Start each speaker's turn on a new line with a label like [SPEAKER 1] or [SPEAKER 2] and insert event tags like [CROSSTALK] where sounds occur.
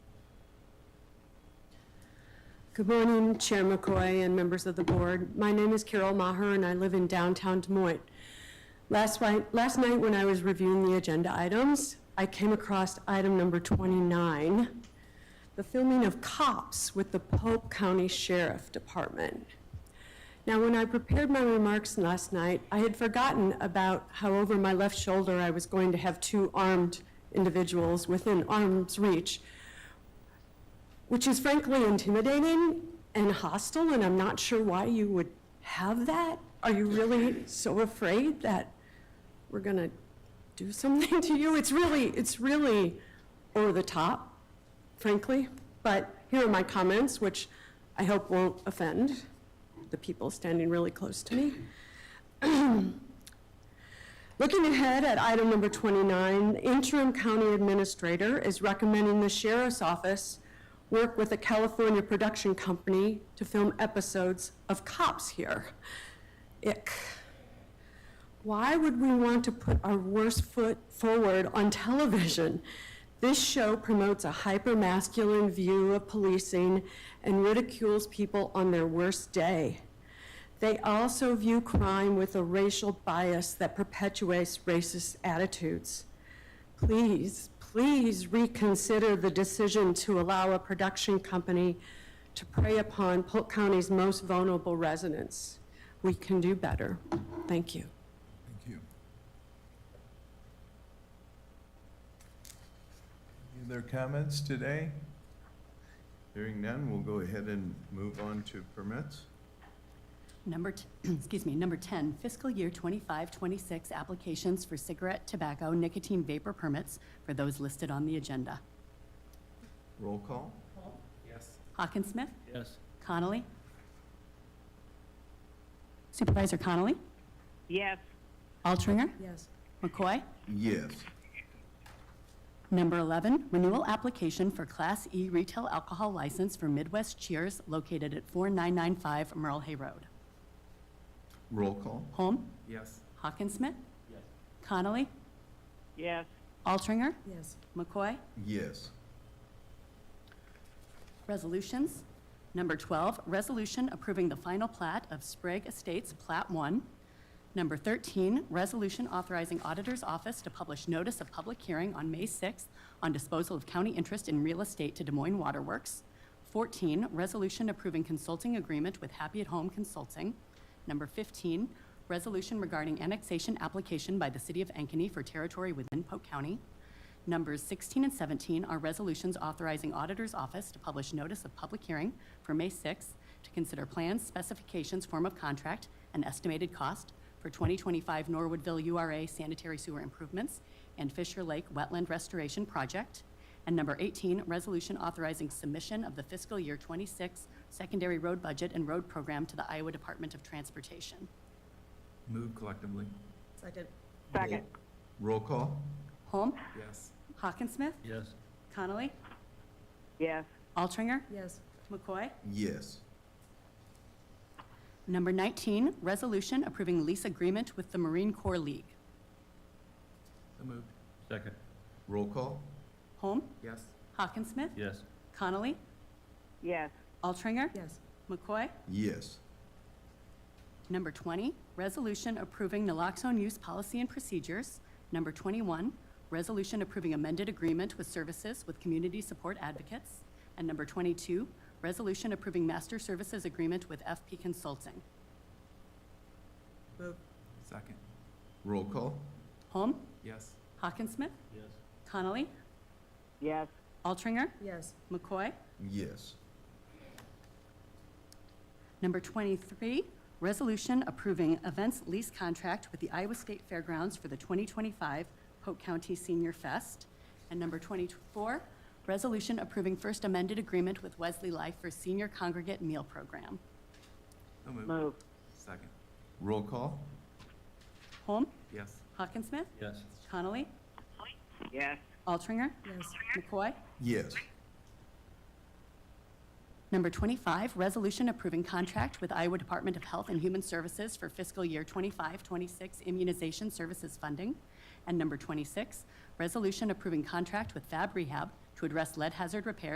[SPEAKER 1] Good morning, Chair McCoy and members of the board. My name is Carol Maher, and I live in downtown Des Moines. Last night, last night when I was reviewing the agenda items, I came across item number 29, the filming of cops with the Pope County Sheriff Department. Now, when I prepared my remarks last night, I had forgotten about how over my left shoulder I was going to have two armed individuals within arm's reach which is frankly intimidating and hostile, and I'm not sure why you would have that. Are you really so afraid that we're gonna do something to you? It's really, it's really over the top, frankly. But here are my comments, which I hope won't offend the people standing really close to me. Looking ahead at item number 29, interim county administrator is recommending the sheriff's office work with a California production company to film episodes of cops here. Ick. Why would we want to put our worst foot forward on television? This show promotes a hyper-masculine view of policing and ridicules people on their worst day. They also view crime with a racial bias that perpetuates racist attitudes. Please, please reconsider the decision to allow a production company to prey upon Polk County's most vulnerable residents. We can do better. Thank you.
[SPEAKER 2] Thank you. Any other comments today? Hearing none, we'll go ahead and move on to permits.
[SPEAKER 3] Number, t- [CLEARS THROAT] excuse me, number 10, fiscal year 25-26 applications for cigarette, tobacco, nicotine vapor permits for those listed on the agenda.
[SPEAKER 2] Roll call?
[SPEAKER 4] Yes.
[SPEAKER 3] Hawkinsmith,
[SPEAKER 4] Yes.
[SPEAKER 3] Connolly. Supervisor Connolly,
[SPEAKER 5] Yes,
[SPEAKER 3] Altringer,
[SPEAKER 1] Yes.
[SPEAKER 3] McCoy.
[SPEAKER 2] Yes.
[SPEAKER 3] Number 11, renewal application for Class E retail alcohol license for Midwest Cheers located at 4995 Merle Hay Road.
[SPEAKER 2] Roll call?
[SPEAKER 3] Holm,
[SPEAKER 4] Yes.
[SPEAKER 3] Hawkinsmith,
[SPEAKER 4] Yes.
[SPEAKER 3] Connolly,
[SPEAKER 5] yes,
[SPEAKER 3] Altringer,
[SPEAKER 1] Yes.
[SPEAKER 3] McCoy.
[SPEAKER 2] Yes.
[SPEAKER 3] Resolutions. Number 12, resolution approving the final plat of Sprague Estates Plat 1. Number 13, resolution authorizing auditor's office to publish notice of public hearing on May 6th on disposal of county interest in real estate to Des Moines Waterworks. 14, resolution approving consulting agreement with Happy at Home Consulting. Number 15, resolution regarding annexation application by the city of Ankeny for territory within Polk County. Numbers 16 and 17 are resolutions authorizing Auditor's Office to publish notice of public hearing for May 6th to consider plans, specifications, form of contract, and estimated cost for 2025 Norwoodville URA sanitary sewer improvements and Fisher Lake Wetland Restoration Project. And number 18, resolution authorizing submission of the fiscal year 26 secondary road budget and road program to the Iowa Department of Transportation.
[SPEAKER 4] Move collectively.
[SPEAKER 5] second,
[SPEAKER 2] Roll call?
[SPEAKER 3] Holm?
[SPEAKER 4] Yes.
[SPEAKER 3] Hawkinsmith?
[SPEAKER 4] Yes.
[SPEAKER 3] Connolly?
[SPEAKER 5] yes,
[SPEAKER 3] Altringer?
[SPEAKER 1] Yes.
[SPEAKER 3] McCoy?
[SPEAKER 2] Yes.
[SPEAKER 3] Number 19, resolution approving lease agreement with the Marine Corps League.
[SPEAKER 4] So moved. Second.
[SPEAKER 2] Roll call?
[SPEAKER 3] Holm?
[SPEAKER 4] Yes.
[SPEAKER 3] Hawkinsmith?
[SPEAKER 4] Yes.
[SPEAKER 3] Connolly?
[SPEAKER 5] yes,
[SPEAKER 3] Altringer?
[SPEAKER 1] Yes.
[SPEAKER 3] McCoy?
[SPEAKER 2] Yes.
[SPEAKER 3] Number 20, resolution approving naloxone use policy and procedures. Number 21, resolution approving amended agreement with services with community support advocates. And number 22, resolution approving master services agreement with FP Consulting.
[SPEAKER 4] Second.
[SPEAKER 2] Roll call?
[SPEAKER 3] Holm?
[SPEAKER 4] Yes.
[SPEAKER 3] Hawkinsmith?
[SPEAKER 4] Yes.
[SPEAKER 3] Connolly?
[SPEAKER 5] yes,
[SPEAKER 3] Altringer?
[SPEAKER 1] Yes.
[SPEAKER 3] McCoy?
[SPEAKER 2] Yes.
[SPEAKER 3] Number 23, resolution approving events lease contract with the Iowa State Fairgrounds for the 2025 Polk County Senior Fest. And number 24, resolution approving first amended agreement with Wesley Life for senior congregate meal program.
[SPEAKER 4] So moved.
[SPEAKER 5] move,
[SPEAKER 4] Second.
[SPEAKER 2] Roll call?
[SPEAKER 3] Holm?
[SPEAKER 4] Yes.
[SPEAKER 3] Hawkinsmith?
[SPEAKER 4] Yes.
[SPEAKER 3] Connolly?
[SPEAKER 5] yes,
[SPEAKER 3] Altringer? McCoy?
[SPEAKER 2] Yes.
[SPEAKER 3] Number 25, resolution approving contract with Iowa Department of Health and Human Services for fiscal year 25-26 immunization services funding. And number 26, resolution approving contract with Fab Rehab to address lead hazard repair